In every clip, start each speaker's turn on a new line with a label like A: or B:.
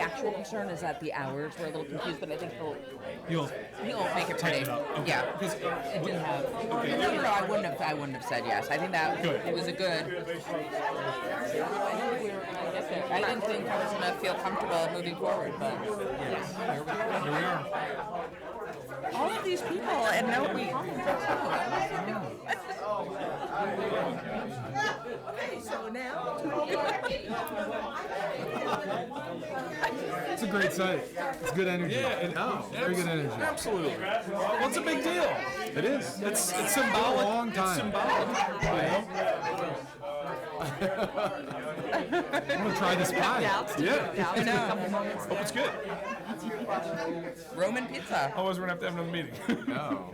A: actual concern is that the hours were a little confused, but I think he'll,
B: You'll
A: he'll make it pretty.
B: tighten it up. Okay.
A: Yeah.
B: Because uh,
A: It did have. No, no, no, I wouldn't have. I wouldn't have said yes. I think that
B: Good.
A: it was a good. I think we were gonna get there. I didn't think I was gonna feel comfortable moving forward, but
B: here we are.
A: all of these people and no, we.
C: So now,
D: It's a great site. It's good energy.
B: Yeah, and-
D: no, very good energy.
B: Absolutely. Well, it's a big deal.
D: It is.
B: It's, it's symbolic.
D: long time.
B: It's symbolic.
D: I'm gonna try this pie.
B: Yeah.
A: I know.
B: Hope Oh, it's good.
A: Roman pizza.
B: Otherwise, we're gonna have to have another meeting.
D: No.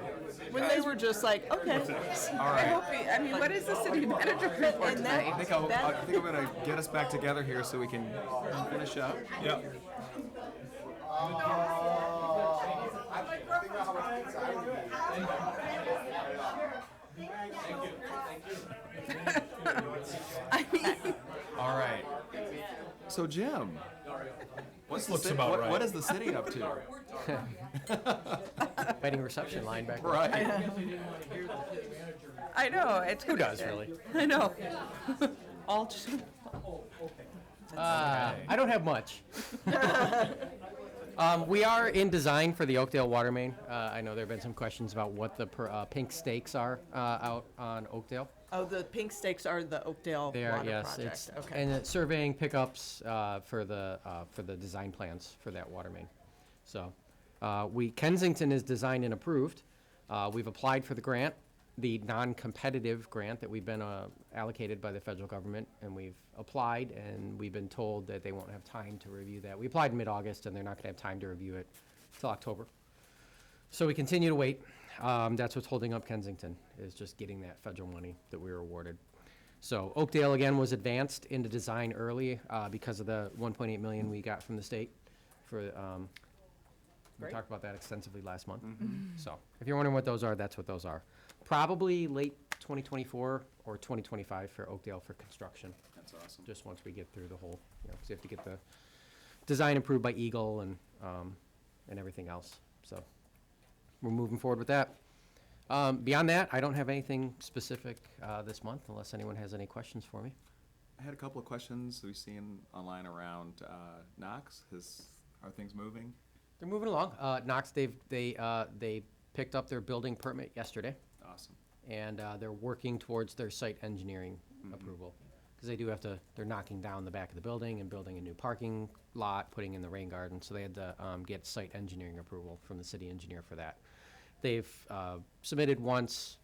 C: when they were just like, okay,
D: All
A: I
D: right.
A: hope. He, I mean, what is the city manager report
C: And that-
D: I
A: tonight?
D: think, I'll,
C: That-
D: I think I'm gonna get us back together here so we can finish up.
B: yeah.
A: I mean,
D: All right. So Jim, what's
B: looks
D: the city,
B: about
D: what,
B: right.
D: what is the city up to?
E: Waiting reception line back. there.
D: right.
A: I know. It's
E: Who does really?
A: I know. All just.
E: Uh, I don't have much. um, we are in design for the Oakdale water main. Uh, I know there have been some questions about what the per, uh, pink stakes are uh, out on Oakdale.
C: oh, the pink stakes are the Oakdale
E: They are
C: water
E: yes,
C: project.
E: it's
C: okay.
E: and it's surveying pickups uh, for the uh, for the design plans for that water main. So uh, we Kensington is designed and approved. Uh, we've applied for the grant, the non-competitive grant that we've been uh, allocated by the federal government, and we've applied and we've been told that they won't have time to review that. We applied in mid-August, and they're not going to have time to review it till October. So we continue to wait. Um, that's what's holding up Kensington, is just getting that federal money that we were awarded. So Oakdale, again, was advanced into design early, uh, because of the one point eight million we got from the state for, um, we
C: Great.
E: talked about that extensively last month. So, if you're wondering what those are, that's what those are. Probably late twenty twenty-four or twenty twenty-five for Oakdale for construction,
D: That's awesome.
E: just once we get through the whole, you know, 'cause you have to get the design approved by Eagle and, um, and everything else, so we're moving forward with that. Um, beyond that, I don't have anything specific uh, this month, unless anyone has any questions for me.
D: I had a couple of questions we've seen online around uh, Knox. Has are things moving?
E: They're moving along. Uh, Knox, they've they uh, they picked up their building permit yesterday,
D: Awesome.
E: and uh, they're working towards their site engineering approval because they do have to. They're knocking down the back of the building and building a new parking lot, putting in the rain garden. So they had to um, get site engineering approval from the city engineer for that. They've uh, submitted once.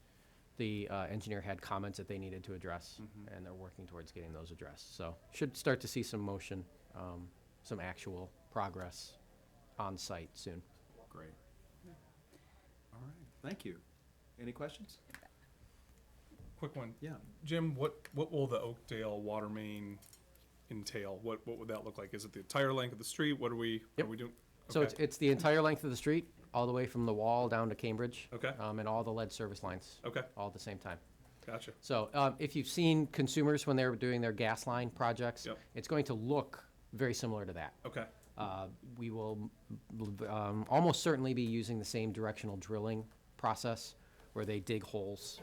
E: The uh, engineer had comments that they needed to address, and they're working towards getting those addressed. So should start to see some motion, um, some actual progress on site soon.
D: Great. All right. Thank you. Any questions?
B: Quick one.
D: Yeah.
B: Jim, what what will the Oakdale water main entail? What what would that look like? Is it the entire length of the street? What are we
E: Yep.
B: are we doing?
E: So it's, it's the entire length of the street, all the way from the wall down to Cambridge.
B: Okay.
E: Um, and all the lead service lines.
B: Okay.
E: All at the same time.
B: gotcha.
E: So um, if you've seen consumers when they were doing their gas line projects,
B: Yep.
E: it's going to look very similar to that.
B: Okay.
E: Uh, we will um, almost certainly be using the same directional drilling process where they dig holes,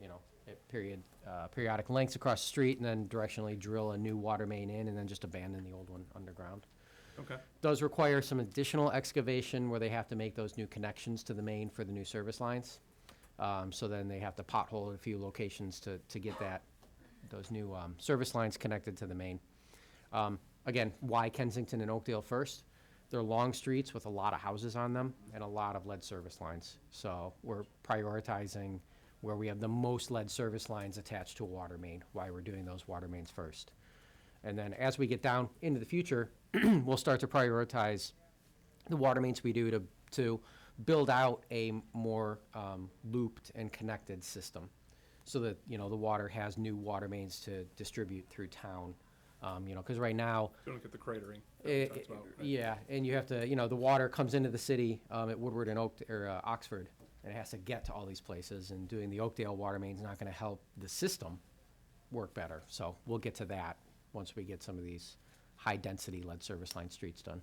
E: you know, at period, uh, periodic lengths across the street and then directionally drill a new water main in and then just abandon the old one underground
B: Okay.
E: does require some additional excavation where they have to make those new connections to the main for the new service lines. Um, so then they have to pothole a few locations to, to get that, those new, um, service lines connected to the main. Um, again, why Kensington and Oakdale first? They're long streets with a lot of houses on them and a lot of lead service lines. So we're prioritizing where we have the most lead service lines attached to a water main, why we're doing those water mains first. And then as we get down into the future, we'll start to prioritize the water mains we do to, to build out a more um, looped and connected system so that, you know, the water has new water mains to distribute through town. Um, you know, because right now,
B: Don't get the cratering. that we
E: it-
B: talked about,
E: it-
B: right?
E: Yeah, and you have to, you know, the water comes into the city um, at Woodward and Oak, or uh, Oxford, and it has to get to all these places, and doing the Oakdale water main's not gonna help the system work better, so we'll get to that once we get some of these high-density lead service line streets done.